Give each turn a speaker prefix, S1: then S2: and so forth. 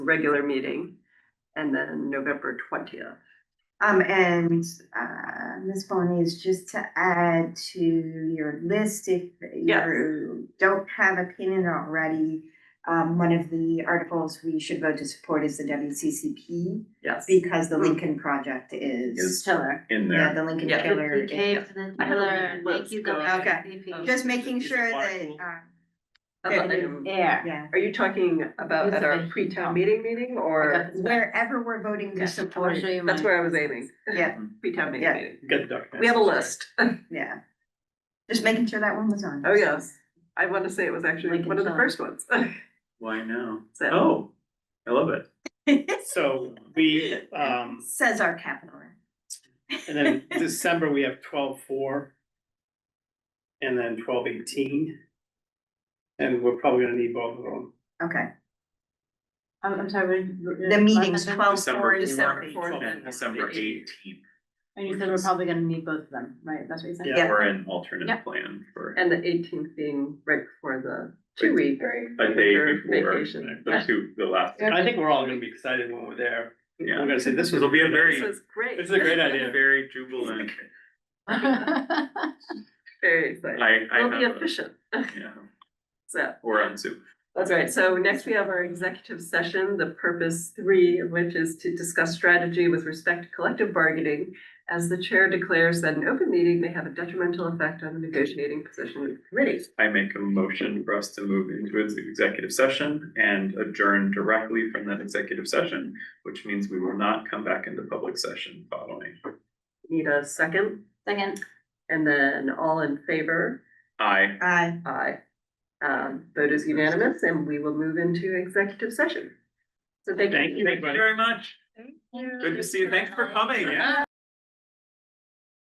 S1: regular meeting, and then November twentieth.
S2: Um, and, uh, Ms. Bonnies, just to add to your list, if
S1: Yes.
S2: you don't have opinion already, um, one of the articles we should vote to support is the WCCP
S1: Yes.
S2: because the Lincoln Project is.
S3: Is
S4: Killer.
S3: in
S2: Yeah, the
S3: there.
S2: Lincoln
S1: Yeah.
S2: Killer.
S4: You
S2: is-
S4: cave to the killer, make you go.
S2: Okay.
S4: ACP.
S2: Just making
S3: Is it
S2: sure that,
S3: Blackpool?
S2: um,
S1: About the-
S4: It's Air.
S2: yeah,
S1: Are you talking about
S4: With
S1: at
S4: the
S1: our
S4: heat
S1: pre-town
S4: pump.
S1: meeting meeting or?
S2: wherever we're voting to support,
S4: I'll show you
S1: That's
S4: mine.
S1: where I was aiming,
S2: yeah,
S1: pre-town meeting
S2: Yeah.
S1: meeting.
S3: You got the document.
S1: We have a list.
S2: yeah. Just making sure that one was on.
S1: Oh, yes. I want to say it was actually
S4: Lincoln
S1: one of the
S4: Town.
S1: first ones.
S3: Why now?
S1: So,
S3: Oh, I love it.
S5: So we, um,
S2: Says our capital.
S5: and then December, we have twelve four. And then twelve eighteen. And we're probably gonna need both of them.
S2: Okay,
S4: I'm, I'm sorry. we're-
S2: the meeting's
S4: we're-
S2: twelve four
S3: December,
S2: is
S1: December
S2: seven.
S1: fourth.
S3: Well,
S1: and
S3: December eighteenth,
S4: And you said we're probably gonna need both of them, right? That's what you said?
S5: Yeah.
S3: or an
S4: Yeah.
S3: alternate plan for
S1: and the eighteenth being right before the two week.
S3: a day before,
S1: Vacation.
S3: the two, the last.
S5: I think we're all gonna be excited when we're there. We're
S3: Yeah.
S5: gonna say, this was.
S3: It'll be a very-
S1: This is great.
S5: This is a great idea.
S3: Very jubilant.
S1: Very exciting.
S3: I, I
S1: It'll
S3: have.
S1: be
S3: a-
S1: efficient.
S3: Yeah,
S1: So.
S3: or on Zoom.
S1: That's right. So next we have our executive session, the purpose three, of which is to discuss strategy with respect to collective bargaining. As the chair declares that an open meeting may have a detrimental effect on the negotiating position of the committee.
S3: I make a motion for us to move into its executive session and adjourn directly from that executive session, which means we will not come back into public session following.
S1: Need a second,
S4: Second,
S1: and then all in favor,
S3: I,
S2: Aye.
S1: aye. Um, vote is unanimous, and we will move into executive session. So thank you.
S5: Thank you,
S3: thank you
S5: everybody.
S3: very much. Good to see you. Thanks for coming.
S4: Yeah.